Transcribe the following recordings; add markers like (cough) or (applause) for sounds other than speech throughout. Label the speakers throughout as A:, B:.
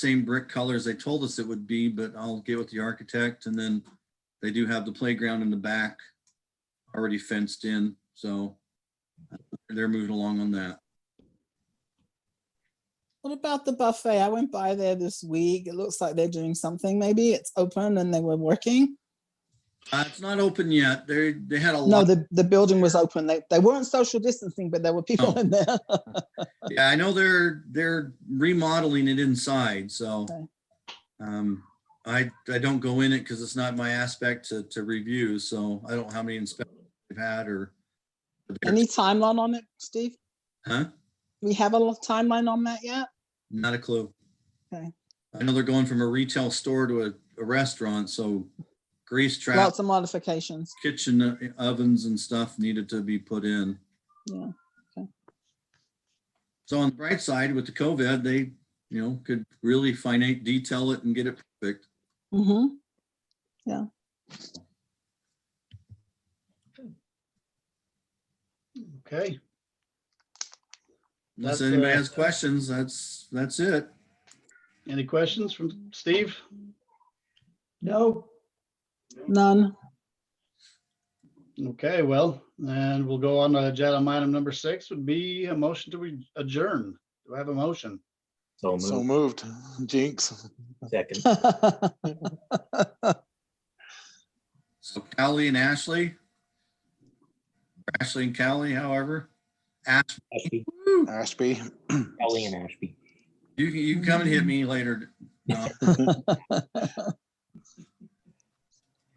A: same brick colors they told us it would be, but I'll get with the architect and then they do have the playground in the back already fenced in, so uh, they're moving along on that.
B: What about the buffet? I went by there this week. It looks like they're doing something. Maybe it's open and they were working.
A: Uh, it's not open yet. They, they had a
B: No,
A: lot.
B: the, the building was open. They, they weren't social distancing, but there were people
A: Oh.
B: in there. (laughs)
A: Yeah, I know they're, they're remodeling it inside, so.
B: Okay.
A: Um, I, I don't go in it because it's not my aspect to, to review, so I don't know how many inspections they've had or.
B: Any timeline on it, Steve?
A: Huh?
B: We have a lo- timeline on that yet?
A: Not a clue.
B: Okay.
A: I know they're going from a retail store to a, a restaurant, so grease traps,
B: Lots of modifications.
A: kitchen uh, ovens and stuff needed to be put in.
B: Yeah, okay.
A: So on the bright side with the COVID, they, you know, could really finite detail it and get it perfect.
B: hmm
C: Okay,
A: Unless
C: That's,
A: anybody
C: uh,
A: has questions, that's, that's it.
C: any questions from Steve?
D: No,
B: None.
C: Okay, well, and we'll go on to agenda item number six would be a motion to re- adjourn. Do I have a motion?
E: So
D: so
E: moved.
D: moved. Jinx.
E: Second.
A: So Callie and Ashley. or Ashley and Callie, however. Ash,
E: Ashby,
D: Ashby.
E: Kelly and Ashby.
A: you, can- you can come and hit me later. Uh, No.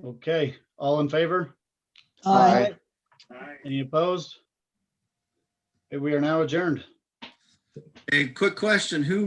C: Okay, all in favor?
B: Aye.
C: Any opposed? Okay, We are now adjourned.
A: Hey, quick question, who